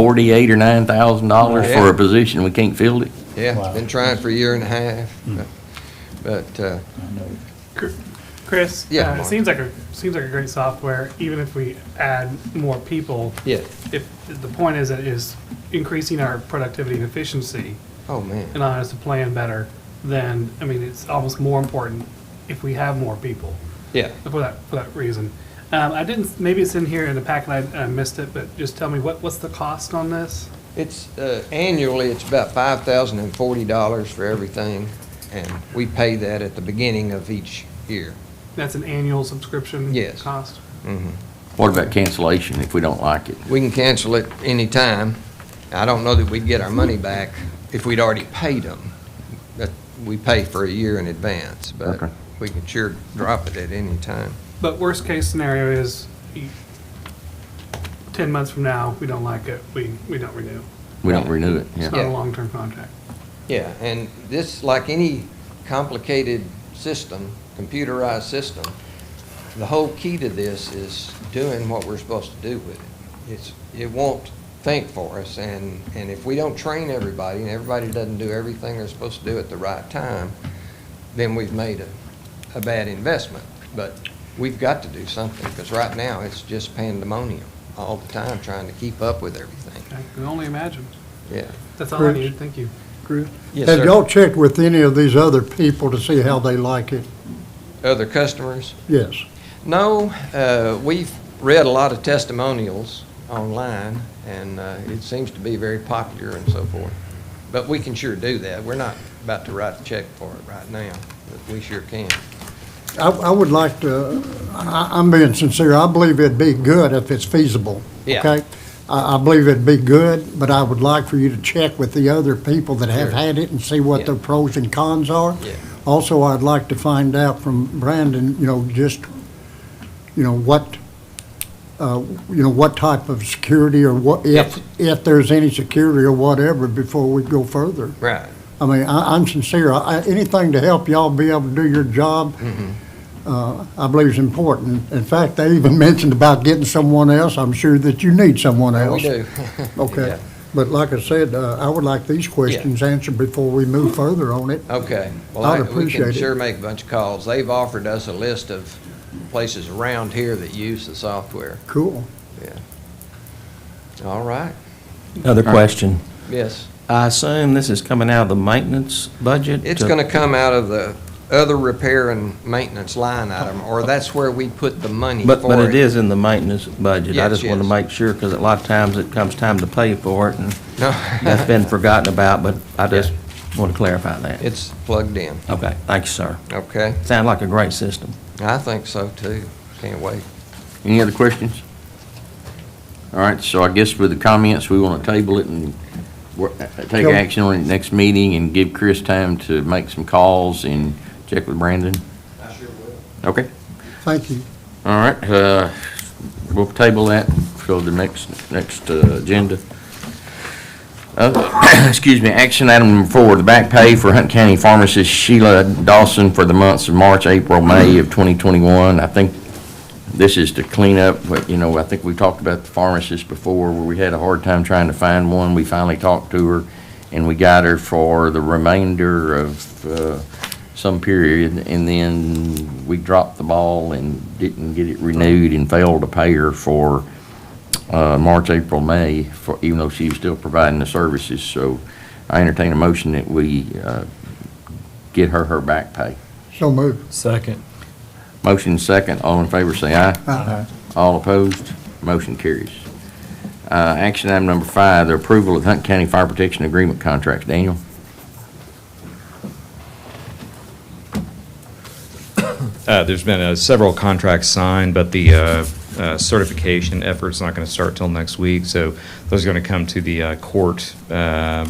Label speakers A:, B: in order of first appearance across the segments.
A: forty-eight or nine thousand dollars for
B: Yeah.
A: a position, we can't fill it?
B: Yeah,
C: Wow.
B: it's been trying for a year and a half, but, uh,
C: I know.
D: Chris?
B: Yeah,
D: uh,
B: Mark.
D: It seems like a, seems like a great software, even if we add more people.
B: yeah,
D: If, the point is that it is increasing our productivity and efficiency
B: oh, man.
D: and allowing us to plan better, then, I mean, it's almost more important if we have more people
B: Yeah,
D: for that, for that reason. Um, I didn't, maybe it's in here in the packet, I, I missed it, but just tell me, what, what's the cost on this?
B: it's, uh, annually, it's about five thousand and forty dollars for everything, and we pay that at the beginning of each year.
D: That's an annual subscription?
B: Yes.
D: Cost?
B: Mhm.
A: What about cancellation if we don't like it?
B: We can cancel it any time. I don't know that we'd get our money back if we'd already paid them. That, we pay for a year in advance, but
A: Okay.
B: we can sure drop it at any time.
D: But worst case scenario is you- ten months from now, we don't like it, we, we don't renew.
A: We don't renew it,
D: It's
A: yeah.
D: not a
B: Yeah.
D: long-term contract.
B: Yeah, and this, like any complicated system, computerized system, the whole key to this is doing what we're supposed to do with it. It's, it won't think for us, and, and if we don't train everybody, and everybody doesn't do everything they're supposed to do at the right time, then we've made a, a bad investment. But we've got to do something, because right now, it's just pandemonium all the time, trying to keep up with everything.
D: I can only imagine.
B: Yeah.
D: That's all I
E: Correct.
D: needed, thank you.
B: Yes,
E: Have
B: sir.
E: y'all checked with any of these other people to see how they like it?
B: Other customers?
E: Yes.
B: No, uh, we've read a lot of testimonials online, and uh, it seems to be very popular and so forth. But we can sure do that. We're not about to write a check for it right now, but we sure can.
E: I, I would like to, I, I'm being sincere, I believe it'd be good if it's feasible.
B: Yeah.
E: Okay? I, I believe it'd be good, but I would like for you to check with the other people that have
B: Sure.
E: had it and see what
B: Yeah.
E: their pros and cons are.
B: Yeah.
E: Also, I'd like to find out from Brandon, you know, just, you know, what, uh, you know, what type of security or what,
B: Yes.
E: if, if there's any security or whatever before we go further.
B: Right.
E: I mean, I, I'm sincere. I, anything to help y'all be able to do your job,
B: Mm-hmm.
E: uh, I believe is important. In fact, they even mentioned about getting someone else. I'm sure that you need someone
B: We
E: else.
B: do. Yeah.
E: Okay. But like I said, uh, I would like these questions answered before we move further on it.
B: Okay. Well,
E: I'd
B: I-
E: appreciate
B: We
E: it.
B: can sure make a bunch of calls. They've offered us a list of places around here that use the software.
E: Cool.
B: All right.
F: Another question.
B: Yes.
F: I assume this is coming out of the maintenance budget?
B: It's going to come out of the other repair and maintenance line item, or that's where we put the money for it.
F: But, but it is in the maintenance budget. I
B: Yes,
F: just want to
B: yes.
F: make sure, because a lot of times it comes time to pay for it, and
B: No.
F: that's been forgotten about, but I just want to clarify that.
B: It's plugged in,
F: Okay, thank you, sir.
B: okay?
F: Sounds like a great system.
B: I think so too. Can't wait.
A: Any other questions? All right, so I guess with the comments, we want to table it and wor- uh, take
E: Yep.
A: action on it next meeting and give Chris time to make some calls and check with Brandon?
B: I sure will.
A: Okay,
E: Thank you.
A: all right, uh, we'll table that for the next, next uh, agenda. Uh, Excuse me, action item number four, the back pay for Hunt County pharmacist Sheila Dawson for the months of March, April, May of 2021. I think this is to clean up, but, you know, I think we talked about the pharmacist before, where we had a hard time trying to find one. We finally talked to her, and we got her for the remainder of uh, some period, and then we dropped the ball and didn't get it renewed and failed to pay her for uh, March, April, May, for, even though she was still providing the services. So I entertain a motion that we uh, get her her back pay.
E: So moved.
G: Second.
A: Motion second, all in favor, say aye.
E: Aye.
A: All opposed, motion carries. Uh, Action item number five, the approval of Hunt County Fire Protection Agreement contracts. Daniel?
G: Uh, There's been uh, several contracts signed, but the uh, uh, certification effort's not going to start till next week, so those are going to come to the uh, court uh,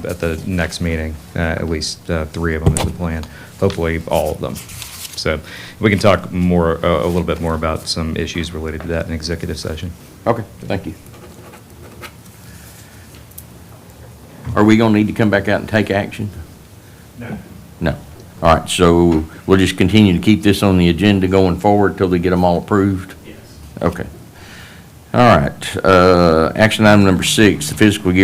G: at the next meeting, Uh, at least uh, three of them is the plan, hopefully all of them. So we can talk more, uh, a little bit more about some issues related to that in executive session.
A: Okay, thank you. Are we gonna need to come back out and take action? No. No. All right, so we'll just continue to keep this on the agenda going forward till they get them all approved? Yes. Okay. All right, uh, action item number six, the fiscal year